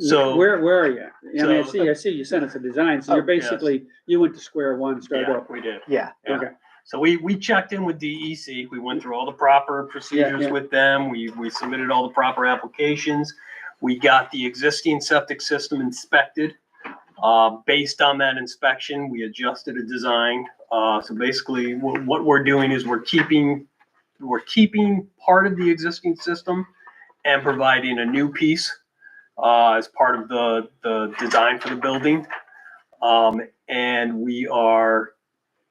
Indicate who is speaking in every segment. Speaker 1: So-
Speaker 2: Where, where are you? I mean, I
Speaker 1: So-
Speaker 2: see, I see you sent us a design, so
Speaker 3: Oh,
Speaker 2: you're
Speaker 1: yes.
Speaker 2: basically, you went to square one, started
Speaker 1: Yeah,
Speaker 2: over.
Speaker 1: we did.
Speaker 3: Yeah,
Speaker 1: yeah.
Speaker 2: Okay,
Speaker 1: So we, we checked in with DEC. We went through all the proper procedures
Speaker 2: yeah.
Speaker 1: with them. We, we submitted all the proper applications. We got the existing septic system inspected. Uh, based on that inspection, we adjusted a design. Uh, so basically what, what we're doing is we're keeping, we're keeping part of the existing system and providing a new piece, uh, as part of the, the design for the building. Um, and we are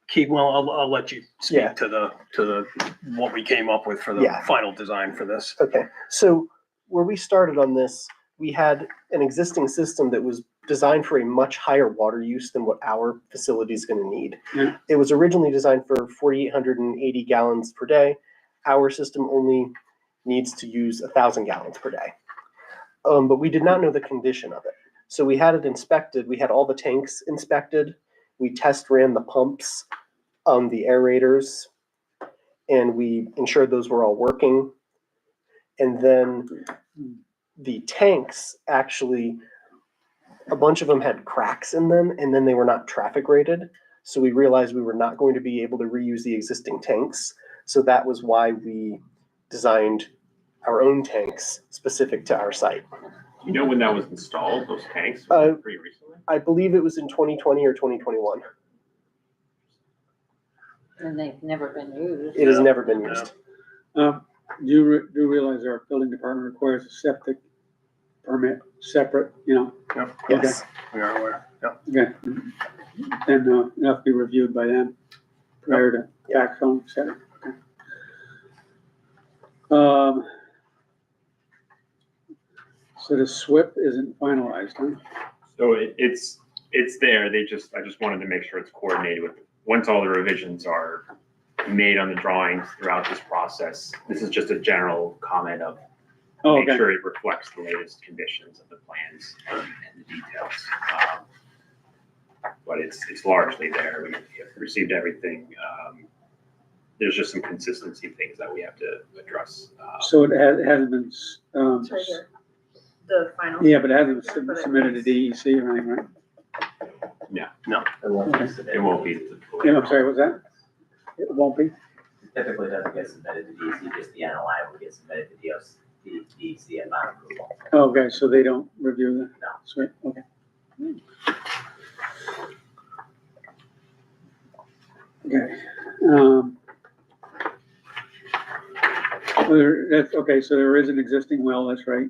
Speaker 1: Keith, well, I'll, I'll let you
Speaker 3: Yeah.
Speaker 1: speak to the, to the, what we came up with for the
Speaker 3: Yeah.
Speaker 1: final design for this.
Speaker 3: okay. So where we started on this, we had an existing system that was designed for a much higher water use than what our facility is going to need.
Speaker 2: Yeah.
Speaker 3: It was originally designed for 4,880 gallons per day. Our system only needs to use 1,000 gallons per day. Um, but we did not know the condition of it. So we had it inspected. We had all the tanks inspected. We test ran the pumps, um, the aerators, and we ensured those were all working. And then the tanks actually, a bunch of them had cracks in them, and then they were not traffic rated. So we realized we were not going to be able to reuse the existing tanks. So that was why we designed our own tanks specific to our site.
Speaker 4: You know when that was installed, those tanks,
Speaker 3: Uh,
Speaker 4: pretty recently?
Speaker 3: I believe it was in 2020 or 2021.
Speaker 5: And they've never been used.
Speaker 3: It has
Speaker 1: Yeah.
Speaker 3: never been
Speaker 1: Yeah.
Speaker 3: used.
Speaker 2: um, you re- do realize our building department requires a septic permit separate, you know,
Speaker 1: Yep,
Speaker 2: Okay.
Speaker 3: Yes.
Speaker 1: we are aware. Yep.
Speaker 2: okay. And, uh, it'll have to be reviewed by them prior to
Speaker 3: Yep.
Speaker 2: backfilling, et cetera. Okay. Um, so the SWIP isn't finalized, huh?
Speaker 4: So it, it's, it's there, they just, I just wanted to make sure it's coordinated with, once all the revisions are made on the drawings throughout this process, this is just a general comment of,
Speaker 2: Oh,
Speaker 4: make
Speaker 2: okay.
Speaker 4: sure it reflects the latest conditions of the plans um, and the details. Um, But it's, it's largely there, we have received everything, um, there's just some consistency things that we have to address. uh,
Speaker 2: So it has, hasn't been, s- um,
Speaker 6: It's right here, the final.
Speaker 2: yeah, but it hasn't been sub- submitted to E DEC or anything, right?
Speaker 7: It won't be
Speaker 4: It
Speaker 7: submitted,
Speaker 4: won't be.
Speaker 2: Yeah, I'm sorry, what's that? It won't be?
Speaker 7: typically doesn't get submitted to DEC, just the NOI will get submitted to DOC, the DEC upon approval.
Speaker 2: Oh, Okay, so they don't review the,
Speaker 7: No.
Speaker 2: sorry, okay. Okay, um. well, There, that's, okay, so there is an existing well, that's right.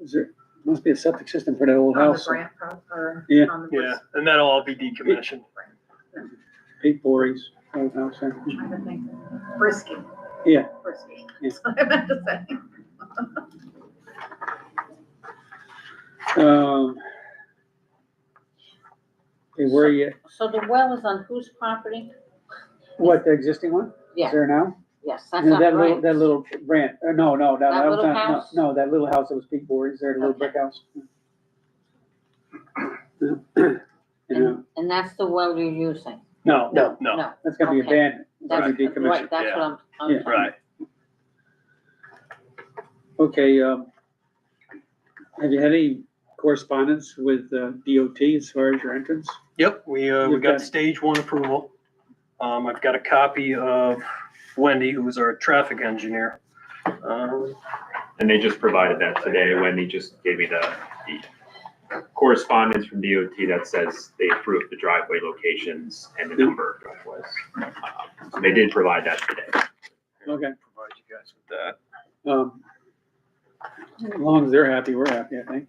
Speaker 2: Is there, must be a septic system for that old
Speaker 6: On the
Speaker 2: house.
Speaker 6: grant, pro- or
Speaker 2: Yeah.
Speaker 6: on the.
Speaker 1: Yeah, and that'll all be decommissioned.
Speaker 2: Pete Bory's old house, I
Speaker 6: I'm
Speaker 2: think.
Speaker 6: Trying to think, Brisky.
Speaker 2: Yeah.
Speaker 6: Brisky,
Speaker 2: Yeah.
Speaker 6: that's what I meant to say.
Speaker 2: Um. Okay, where are you,
Speaker 5: So the well is on whose property?
Speaker 2: what, the existing one? Is
Speaker 5: Yeah.
Speaker 2: there now?
Speaker 5: Yes, that's
Speaker 2: And
Speaker 5: not
Speaker 2: That little,
Speaker 5: right.
Speaker 2: that little branch, uh, no, no, no,
Speaker 5: That
Speaker 2: that was
Speaker 5: little
Speaker 2: not,
Speaker 5: house?
Speaker 2: no, no, that little house that was Pete Bory's there, the little
Speaker 5: Okay.
Speaker 2: brick house. You
Speaker 5: And,
Speaker 2: know,
Speaker 5: and that's the well you're using?
Speaker 2: No,
Speaker 3: No.
Speaker 1: No.
Speaker 5: No,
Speaker 2: that's gonna be
Speaker 5: Okay.
Speaker 2: abandoned,
Speaker 5: that's,
Speaker 2: gonna be decommissioned.
Speaker 5: right, that's what I'm,
Speaker 2: Yeah.
Speaker 5: I'm.
Speaker 1: Right.
Speaker 2: Okay, um, have you had any correspondence with uh, DOT as far as your entrance?
Speaker 1: Yep, we, uh, we
Speaker 2: You've got-
Speaker 1: got stage one approval. Um, I've got a copy of Wendy, who's our traffic engineer. Um,
Speaker 4: And they just provided that today. Wendy just gave me the, the correspondence from DOT that says they approved the driveway locations and the number of driveways. Uh, so They did provide that today.
Speaker 2: Okay,
Speaker 1: Provide you guys with that.
Speaker 2: um, as long as they're happy, we're happy, I think.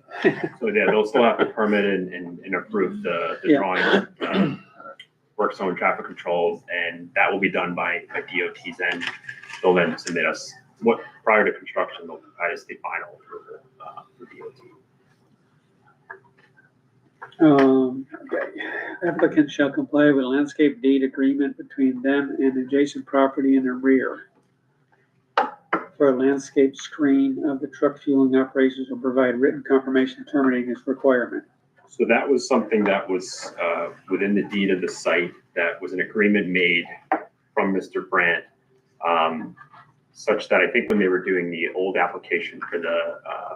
Speaker 4: So yeah, they'll still have to permit and, and, and approve the, the
Speaker 2: Yeah.
Speaker 4: drawing, uh, work zone traffic controls, and that will be done by, by DOT's end. They'll then submit us, what, prior to construction, they'll provide us the final approval, uh, for DOT.
Speaker 2: Um, okay. applicant shall comply with landscape deed agreement between them and adjacent property in the rear for a landscape screen of the truck fueling operations will provide written confirmation terminating this requirement.
Speaker 4: So that was something that was uh, within the deed of the site, that was an agreement made from Mr. Brandt, um, such that I think when they were doing the old application for the uh,